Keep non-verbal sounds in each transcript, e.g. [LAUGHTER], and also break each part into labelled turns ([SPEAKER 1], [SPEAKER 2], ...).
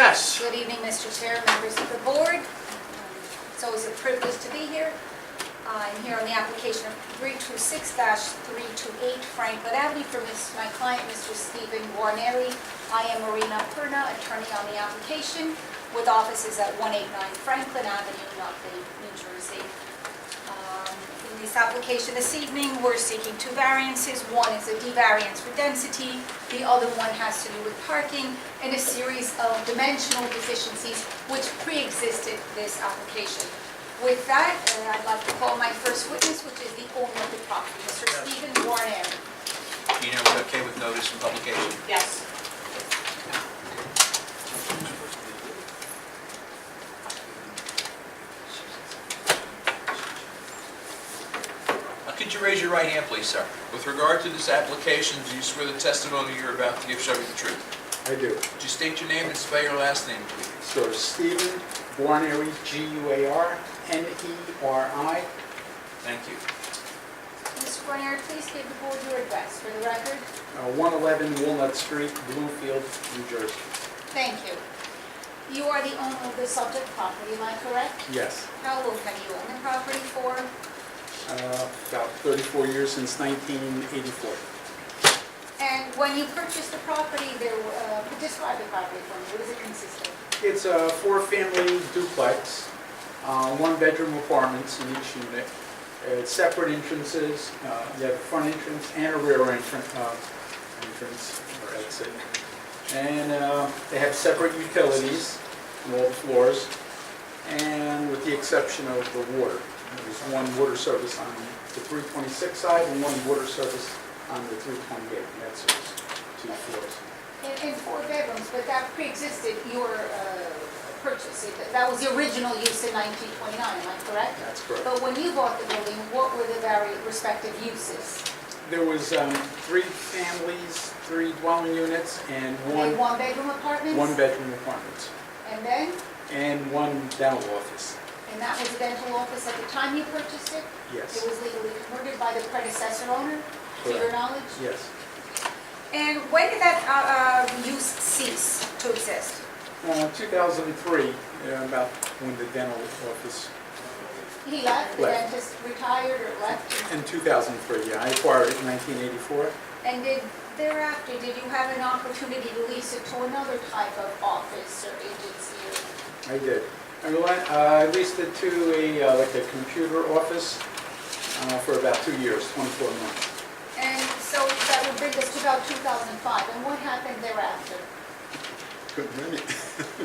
[SPEAKER 1] Yes.
[SPEAKER 2] Good evening, Mr. Chair, members of the board. It's always a privilege to be here. I'm here on the application of 326-328 Franklin Avenue for Miss- my client, Mr. Stephen Guarneri. I am Marina Perna, attorney on the application, with offices at 189 Franklin Avenue, Nutley, New Jersey. Um, In this application this evening, we're seeking two variances. One is a D variance for density, the other one has to do with parking and a series of dimensional deficiencies which pre-existed this application. With that, uh, I'd like to call my first witness, which is the owner of the property, Mr. Stephen Warner.
[SPEAKER 3] You know, we're okay with notice and publication?
[SPEAKER 2] Yes.
[SPEAKER 3] Uh, Could you raise your right hand, please, sir? With regard to this application, do you swear the testimony you're about to give shall be the truth?
[SPEAKER 4] I do.
[SPEAKER 3] Could you state your name and spell your last name, please?
[SPEAKER 4] So Stephen Guarneri, E G-U-A-R-N-E-R-I,
[SPEAKER 3] Thank you.
[SPEAKER 2] Mr. Warner, please give the board your address for the record.
[SPEAKER 4] uh, 111 Walnut Street, Bloomfield, New Jersey.
[SPEAKER 2] Thank you. You are the owner of the subject property, am I correct?
[SPEAKER 4] Yes,
[SPEAKER 2] How long have you owned the property for?
[SPEAKER 4] uh, about 34 years since 1984.
[SPEAKER 2] And when you purchased the property, there, were, uh, describe the property for me, what does it consist of?
[SPEAKER 4] It's a four-family duplex, uh, one-bedroom apartments in each unit, uh, separate entrances, uh, you have a front entrance and a rear entrance, uh, entrance, or exit. And uh, they have separate utilities on all the floors, and with the exception of the water. There's one water service on the 326 side and one water service on the 328, and that's those two floors.
[SPEAKER 2] In, in four bedrooms, but that pre-existed your uh, purchase. It- That was the original use in 1929, am I correct?
[SPEAKER 4] That's correct.
[SPEAKER 2] But when you bought the building, what were the various respective uses?
[SPEAKER 4] There was um, three families, three dwelling units, and
[SPEAKER 2] Were they
[SPEAKER 4] one,
[SPEAKER 2] one-bedroom apartments?
[SPEAKER 4] one-bedroom apartment,
[SPEAKER 2] And then,
[SPEAKER 4] and one dental office.
[SPEAKER 2] and that was a dental office at the time you purchased it? It
[SPEAKER 4] Yes,
[SPEAKER 2] was legally converted by the predecessor owner, to your
[SPEAKER 4] Correct.
[SPEAKER 2] knowledge?
[SPEAKER 4] yes.
[SPEAKER 2] And when did that uh, uh, use cease to exist?
[SPEAKER 4] Uh, 2003, uh, about when the dental office,
[SPEAKER 2] He left, the
[SPEAKER 4] Left.
[SPEAKER 2] dentist retired or left?
[SPEAKER 4] in 2003, yeah, I acquired it in 1984.
[SPEAKER 2] And did thereafter, did you have an opportunity to lease it to another type of office or agency? or-
[SPEAKER 4] I did. I reli- uh, I leased it to a, uh, like a computer office uh, for about two years, 24 months.
[SPEAKER 2] And so that would bring us to about 2005, and what happened thereafter
[SPEAKER 4] Couldn't rent it.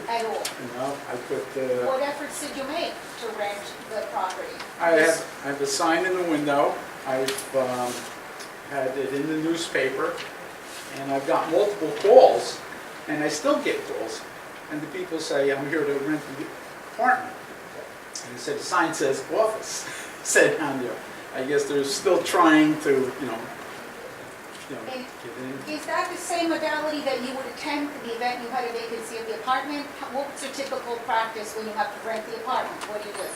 [SPEAKER 2] at all?
[SPEAKER 4] You know, I put, uh,
[SPEAKER 2] What efforts did you make to rent the property?
[SPEAKER 4] I have, I have a sign in the window, I've um, had it in the newspaper, and I've got multiple calls, and I still get calls. And the people say, I'm here to rent the apartment. And they said, the sign says office, [LAUGHS] said on there. I guess they're still trying to, you know, you know,
[SPEAKER 2] And-
[SPEAKER 4] get in.
[SPEAKER 2] Is that the same modality that you would attend the event you had a vacancy of the apartment? What's your typical practice when you have to rent the apartment? What do you do?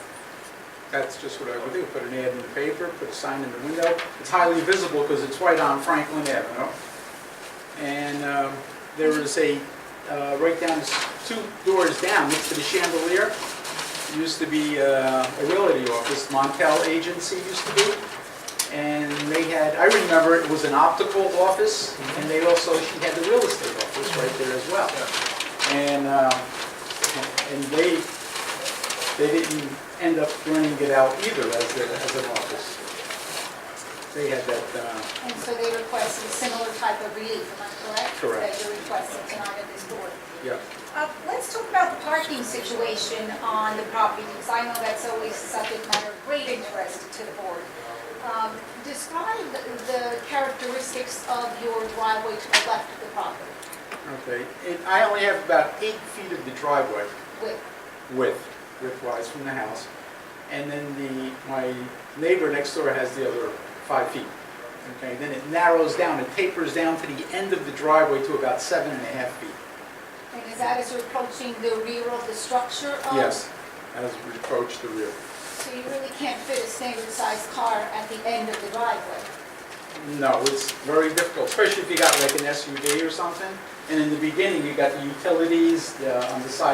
[SPEAKER 4] That's just what I would do, put an ad in the paper, put a sign in the window. It's highly visible because it's right on Franklin Avenue. And um, there is a, uh, right down, two doors down, next to the chandelier, used to be uh, a realty office, Montel Agency used to be. And they had, I remember it was an optical office, and they also, she had the real estate office right there as well. And, uh, and they, they didn't end up running it out either as, a- as an office. They had that, uh,
[SPEAKER 2] And so they requested a similar type of relief, am I correct?
[SPEAKER 4] Correct.
[SPEAKER 2] That you're requesting tonight at this board.
[SPEAKER 4] yeah.
[SPEAKER 2] Uh, Let's talk about the parking situation on the property, because I know that's always a subject matter of great interest to the board. Um, Describe the- the characteristics of your driveway to the left of the property
[SPEAKER 4] Okay, and I only have about eight feet of the driveway
[SPEAKER 2] with,
[SPEAKER 4] width, width-wise from the house. And then the, my neighbor next door has the other five feet. Okay, then it narrows down, it tapers down to the end of the driveway to about seven and a half feet.
[SPEAKER 2] and is that as you're approaching the rear of the structure? of-
[SPEAKER 4] Yes, as we approach the rear.
[SPEAKER 2] So you really can't fit a standard-sized car at the end of the driveway?
[SPEAKER 4] No, it's very difficult, especially if you got like an SUV or something. And in the beginning, you got the utilities, the, on the side